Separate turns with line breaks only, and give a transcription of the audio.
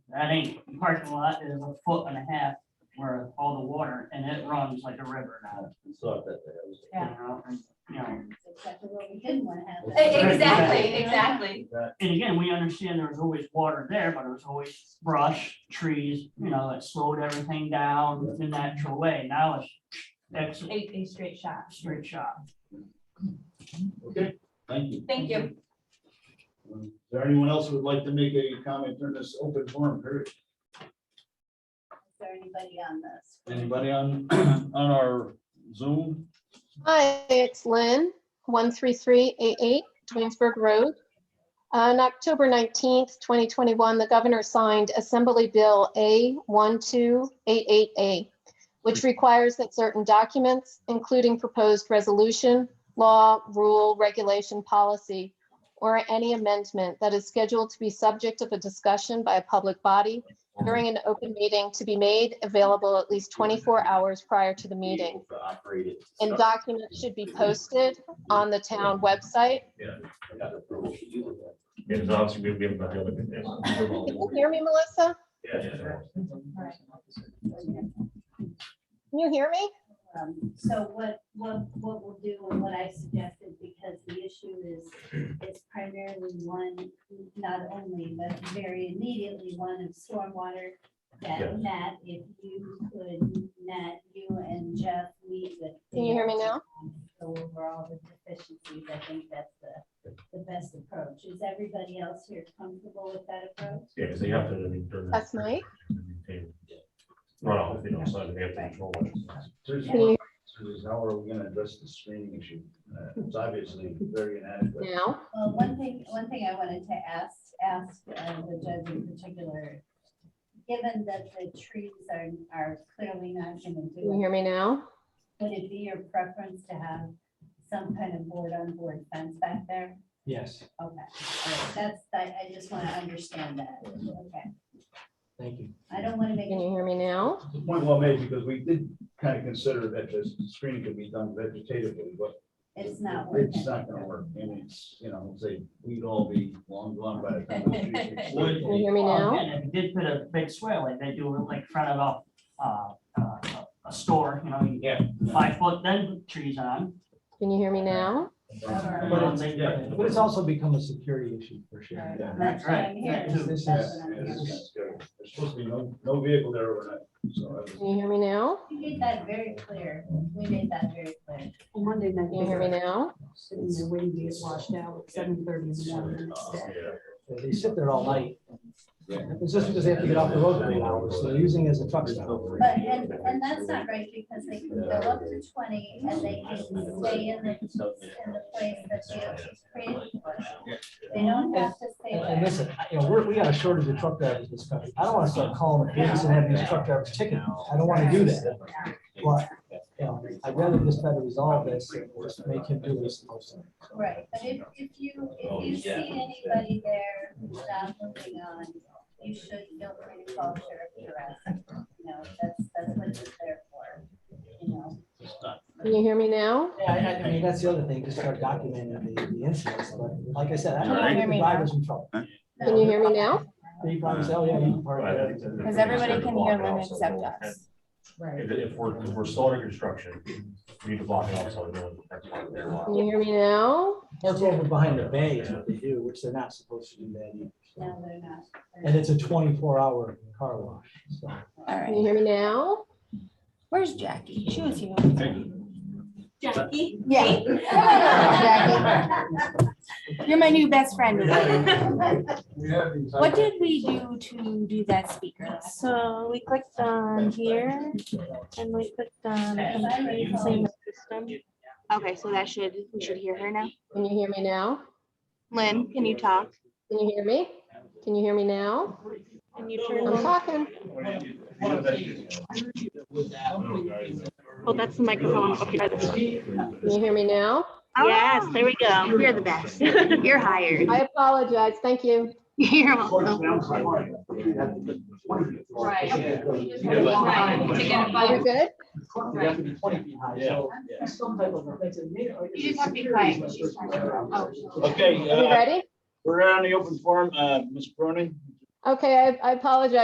That ain't, the parking lot is a foot and a half where all the water, and it runs like a river now.
We saw that there. It was-
you know, and, You know,
Except for what we didn't want to happen.
E-
Exactly, exactly.
That-
and again, we understand there was always water there, but it was always brush, trees, you know, it slowed everything down in a natural way. Now it's exit,
A, a straight shot.
straight shot.
Okay, thank you.
Thank you.
Um, Is there anyone else who would like to make a comment during this open forum period?
Is there anybody on this?
Anybody on, on our Zoom?
Hi, it's Lynn, 13388 Twinsburg Road. On October 19th, 2021, the governor signed Assembly Bill A1288A, which requires that certain documents, including proposed resolution, law, rule, regulation, policy, or any amendment that is scheduled to be subject of a discussion by a public body during an open meeting to be made available at least 24 hours prior to the meeting. And documents should be posted on the town website.
It is obviously we'll be able to deal with it.
Can you hear me, Melissa? Can you hear me?
Um, So what, what, what we'll do and what I suggested, because the issue is, it's primarily one, not only, but very immediately one of stormwater. That
Yes.
Matt, if you could, Matt, you and Jeff meet with.
Can you hear me now?
Go over all the deficiencies. I think that's the, the best approach. Is everybody else here comfortable with that approach?
Yeah, because they have to. I mean, they're-
That's Mike.
Run off, you know, so they have to control it.
There's
Can you
one, there's how are we gonna address the screening issue? Uh, It's obviously very inadequate.
hear me now?
Well, one thing, one thing I wanted to ask, ask uh, the judge in particular, given that the trees are, are clearly not gonna
Can you
do it,
hear me now?
would it be your preference to have some kind of board on board fence back there?
Yes,
Okay, all right, that's, I, I just wanna understand that, okay.
thank you.
I don't wanna make
Can
it
you hear me now?
The point well made, because we did kind of consider that this screening could be done vegetatively, but
it's not working.
It's not gonna work, and it's, you know, say, we'd all be long gone by the time. the trees are
Would-
Can you hear me
Well,
now?
again, if you did put a big swale, like they do like front of a, uh, uh, a store, you know, you get five foot then trees on.
Can you hear me now?
planted.
But it's- yeah.
But it's also become a security issue for sure.
Right.
Yeah.
That's what I'm
Right, right,
hearing.
this
Yeah,
That's
is-
what I'm
yeah,
hearing.
this is good. There's supposed to be no, no vehicle there overnight, so. I
Can
was-
you hear me now?
You made that very clear, we made that very clear.
Monday night,
Can you hear me now?
sitting there waiting to get washed out at seven thirty in the morning. the next day.
Yeah.
They sit there all night.
Yeah.
It's just because they have to get off the road for eight hours, so they're using it as a truck stop.
But, and, and that's not right, because they can go up to twenty and they can stay in the, in the place that they have created for them. They don't have to stay
And and
there.
listen, you know, we're, we got a shortage of truck drivers in this country. I don't want to start calling the police and having these truck drivers ticketed. I don't want to do that. But, you know, I'd rather just try to resolve this, and just make him do this.
Right, but if, if you, if you see anybody there not moving on, you should feel free to call sheriff harassment. You know, that's, that's what it's there for, you know.
Can you hear me now?
Yeah, I, I mean, that's the other thing, just start documenting the, the incidents, but like I said, I don't want to
Can you
get
hear
the
me
drivers in trouble.
Can you hear me now?
They probably say, oh, yeah, you can park
But I
there.
think that-
Because everybody can hear them
Walk out, so
except
no one
us.
can-
Right.
If, if we're, if we're still under construction, we need to block it off, so no one. that's why they're
Can
locked.
you hear me now?
Park over behind the bay is what they do, which they're not supposed to do that either. so.
No, they're not.
And it's a twenty-four hour car wash, so.
All
Can you
right.
hear me now?
Where's Jackie? She was here.
Jackie?
Yeah. You're my new best friend. What did we do to do that speaker?
So we clicked on here and we clicked on
As I
complete
recall,
claim system. Okay, so that should, we should hear her now.
Can you hear me now?
Lynn, can you talk?
Can you hear me? Can you hear me now?
Can you turn?
I'm
on-
talking.
Oh, that's the microphone. Okay, that's-
Can you hear me now?
Yes, there we go. You're the best. You're hired.
I apologize. Thank you.
You're welcome.
Right.
Right, to get a
Are we
bite.
good?
You just have to be quiet. She's
Okay,
Are we
uh,
ready?
we're on the open forum, uh, Ms. Bruning?
Okay, I I apologize.